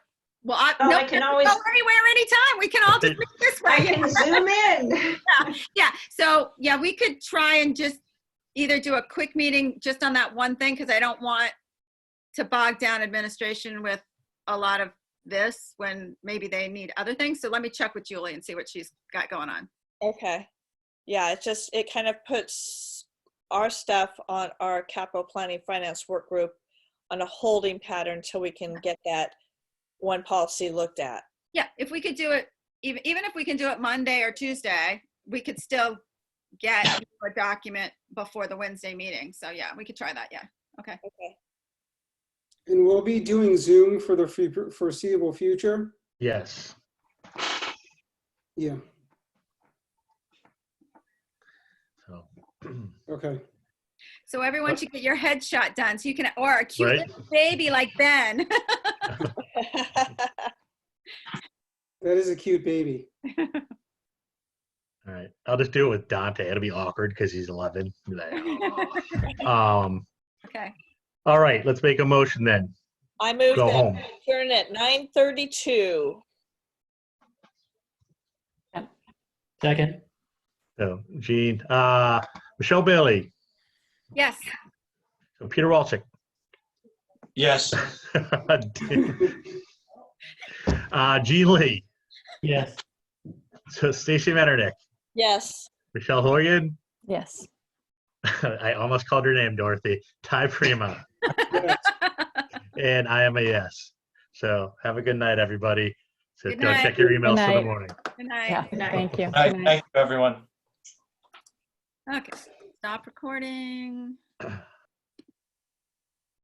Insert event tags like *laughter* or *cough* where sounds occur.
Well, I, Oh, no, I can we always- go anywhere, anytime. We can all just meet this I way. can zoom in. *laughs* Yeah. So yeah, we could try and just either do a quick meeting just on that one thing because I don't want to bog down administration with a lot of this when maybe they need other things. So let me check with Julie and see what she's got going on. Okay. Yeah, it just, it kind of puts our stuff on our capital planning finance work group on a holding pattern till we can get that one policy looked at. *laughs* Yeah, if we could do it, even, even if we can do it Monday or Tuesday, we could still get a document before the Wednesday meeting. So yeah, we could try that, yeah. Okay. And we'll be doing Zoom for the fu- foreseeable future? Yes. Yeah, So, *clears throat* okay. So everyone should get your headshot done so you can, or a cute Right. little baby like Ben. That is a cute baby. All right. I'll just do it with Dante. It'll be awkward because he's 11. Be like, "Oh." um, Okay, all right. Let's make a motion then. I move Go that home. we adjourn at nine thirty-two. Second, So, Gene, uh, Michelle Bailey, yes. Peter Walczyk, Yes. *laughs* uh, Gene Lee, yes. so Stacy Metternich, Yes. Michelle Horgan. Yes. *laughs* I almost called her name, Dorothy. *laughs* Ty Prima. Yes. and I am a yes. So have a good night, everybody. So Good go night. check your emails for the night. morning. Good Yeah, night. night. thank you. All right, Good night. Thank you, everyone. Okay, stop recording.